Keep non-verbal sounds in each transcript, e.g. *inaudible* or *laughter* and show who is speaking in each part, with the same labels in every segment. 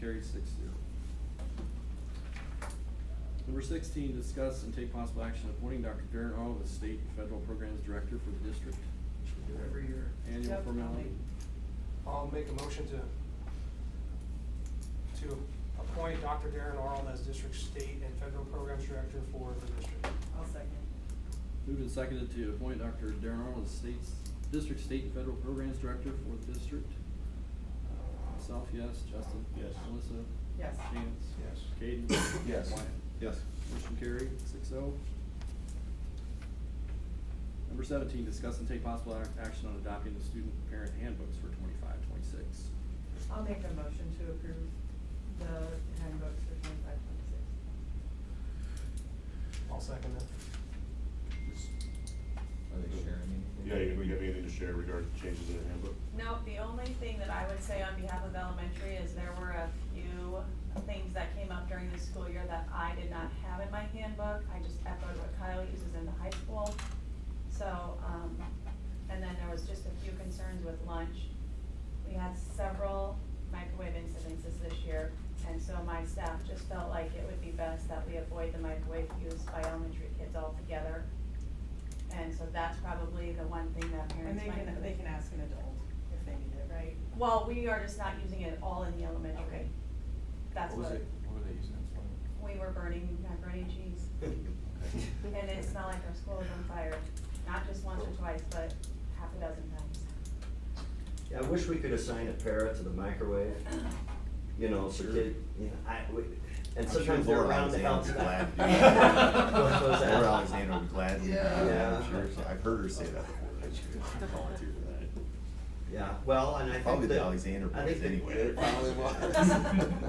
Speaker 1: carried six zero. Number sixteen, discuss and take possible action appointing Dr. Darren Arnold as state and federal programs director for the district.
Speaker 2: We do every year.
Speaker 1: Annual
Speaker 3: Yep, I'll
Speaker 1: formality.
Speaker 2: I'll make a motion to, to appoint Dr. Darren Arnold as district state and federal programs director for the district.
Speaker 3: I'll second.
Speaker 1: Moved and seconded to appoint Dr. Darren Arnold as state's, district, state, and federal programs director for the district. Myself, yes. Justin?
Speaker 4: Yes.
Speaker 1: Melissa?
Speaker 3: Yes.
Speaker 1: Chance?
Speaker 2: Yes.
Speaker 1: Caden?
Speaker 4: Yes.
Speaker 1: Wyatt?
Speaker 4: Yes.
Speaker 1: Motion carried, six oh. Number seventeen, discuss and take possible ac- action on adopting the student parent handbooks for twenty-five, twenty-six.
Speaker 3: I'll make a motion to approve the handbooks for twenty-five, twenty-six.
Speaker 2: I'll second it.
Speaker 5: Are they sharing anything?
Speaker 4: Yeah, you- we have
Speaker 5: *laughs*
Speaker 4: anything to share regarding changes in the handbook?
Speaker 6: No, the only thing that I would say on behalf of elementary is there were a few things that came up during the school year that I did not have in my handbook. I just echoed what Kyle uses in the high school. So, um, and then there was just a few concerns with lunch. We had several microwave incidences this year, and so my staff just felt like it would be best that we avoid the microwave use by elementary kids altogether. And so that's probably the one thing that
Speaker 7: And
Speaker 6: parents
Speaker 7: they
Speaker 6: might.
Speaker 7: can, they can ask an adult if they need it, right?
Speaker 6: Well, we are just not using it at all in the elementary.
Speaker 7: Okay.
Speaker 6: That's
Speaker 5: What was
Speaker 6: what,
Speaker 5: it, what were they using it for?
Speaker 6: we were burning macaroni and cheese. And it's not like our school is on fire, not just once or twice, but half a dozen times.
Speaker 8: Yeah, I wish we could assign a para to the microwave, you know, so kid, you know, I, we, and
Speaker 5: I'm sure
Speaker 8: sometimes they're
Speaker 5: Laura
Speaker 8: around to help.
Speaker 5: Alexander would
Speaker 8: *laughs*
Speaker 5: laugh.
Speaker 8: What was that?
Speaker 5: Laura Alexander would gladly,
Speaker 8: Yeah.
Speaker 5: yeah, I'm sure, so I've heard her say that before, that she would volunteer for that.
Speaker 8: Yeah, well, and I think that.
Speaker 5: Probably the Alexander
Speaker 8: I
Speaker 5: boys
Speaker 8: think that
Speaker 5: anyway.
Speaker 4: It
Speaker 5: *laughs*
Speaker 4: probably
Speaker 6: was.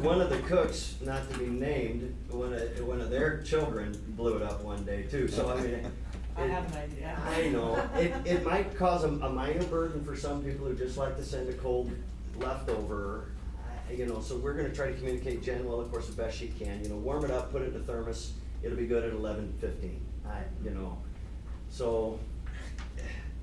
Speaker 8: One of the cooks, not to be named, one of, one of their children blew it up one day too, so I mean. it-
Speaker 7: I have an idea.
Speaker 8: I know, it, it might cause a, a minor burden for some people who just like to send a cold leftover. I- You know, so we're gonna try to communicate Jen well, of course, the best she can, you know, warm it up, put it in a thermos, it'll be good at eleven fifteen, I, you know. So,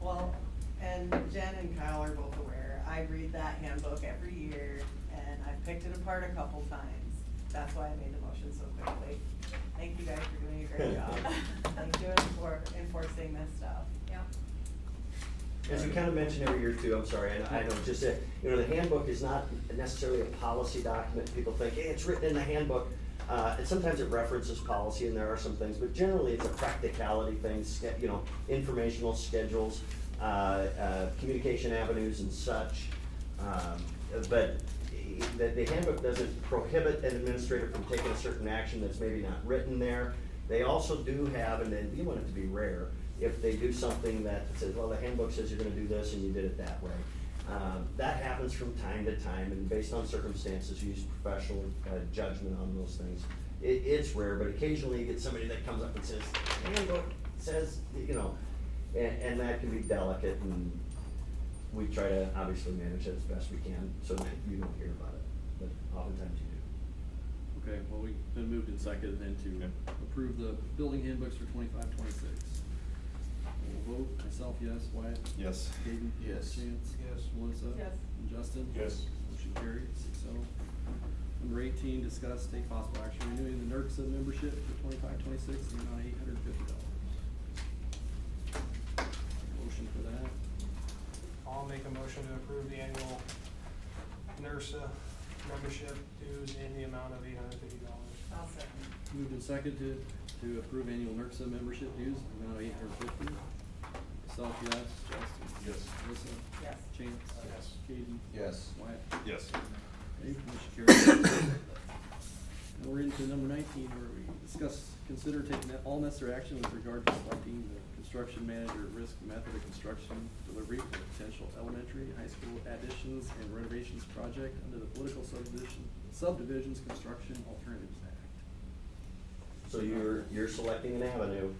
Speaker 7: Well, and Jen and Kyle are both aware, I read that handbook every year, and I've picked it apart a couple times. That's why I made the motion so quickly. Thank you guys for doing a
Speaker 8: *laughs*
Speaker 7: great job. Thank you for enforcing this stuff.
Speaker 6: Yeah.
Speaker 8: As we kind of mention every year too, I'm sorry, and I know, just that, you know, the handbook is not necessarily a policy document. People think, hey, it's written in the handbook. Uh, and sometimes it references policy and there are some things, but generally it's a practicality thing, ske- you know, informational schedules, uh, uh, communication avenues and such. Um, but the, the handbook doesn't prohibit an administrator from taking a certain action that's maybe not written there. They also do have, and then you want it to be rare, if they do something that says, well, the handbook says you're gonna do this and you did it that way. Um, that happens from time to time, and based on circumstances, you use professional uh, judgment on those things. It, it's rare, but occasionally you get somebody that comes up and says, "The handbook says, you know, and, and that can be delicate and we try to obviously manage it as best we can so that you don't hear about it, but oftentimes you do.
Speaker 1: Okay, well, we have been moved and seconded then to
Speaker 4: Okay.
Speaker 1: approve the building handbooks for twenty-five, twenty-six. We'll vote, myself, yes, Wyatt?
Speaker 4: Yes.
Speaker 1: Caden?
Speaker 5: Yes.
Speaker 1: Chance?
Speaker 2: Yes.
Speaker 1: Melissa?
Speaker 3: Yes.
Speaker 1: And Justin?
Speaker 4: Yes.
Speaker 1: Motion carried, six oh. Number eighteen, discuss take possible action renewing the E NERCSA membership for twenty-five, twenty-six, in the amount of eight hundred and fifty dollars. Motion for that.
Speaker 2: I'll make a motion to approve the annual NERSA membership dues in the amount of eight hundred fifty dollars.
Speaker 3: I'll second.
Speaker 1: Moved and seconded to, to approve annual E NERCSA membership dues, in the amount of eight hundred and fifty. Myself, yes. Justin?
Speaker 4: Yes.
Speaker 1: Melissa?
Speaker 7: Yes.
Speaker 1: Chance?
Speaker 2: Yes.
Speaker 1: Caden?
Speaker 5: Yes.
Speaker 1: Wyatt?
Speaker 4: Yes.
Speaker 1: Okay, motion carries. Now we're into number nineteen, where we discuss, consider taking all necessary action with regard to selecting the construction manager at risk method of construction delivery for potential elementary, high school additions and renovations project under the political subdivision, subdivisions construction alternatives act.
Speaker 8: So you're, you're selecting an avenue,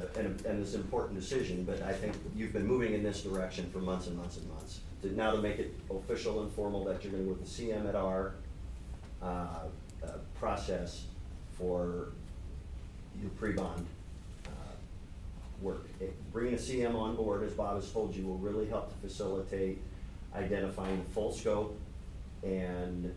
Speaker 8: uh, and, and it's an important decision, but I think you've been moving in this direction for months and months and months. To now to make it official and formal that you're gonna go with the CM at R, uh, uh, process for your pre-bond, uh, work. It- Bringing a CM on board, as Bob has told you, will really help to facilitate identifying the full scope and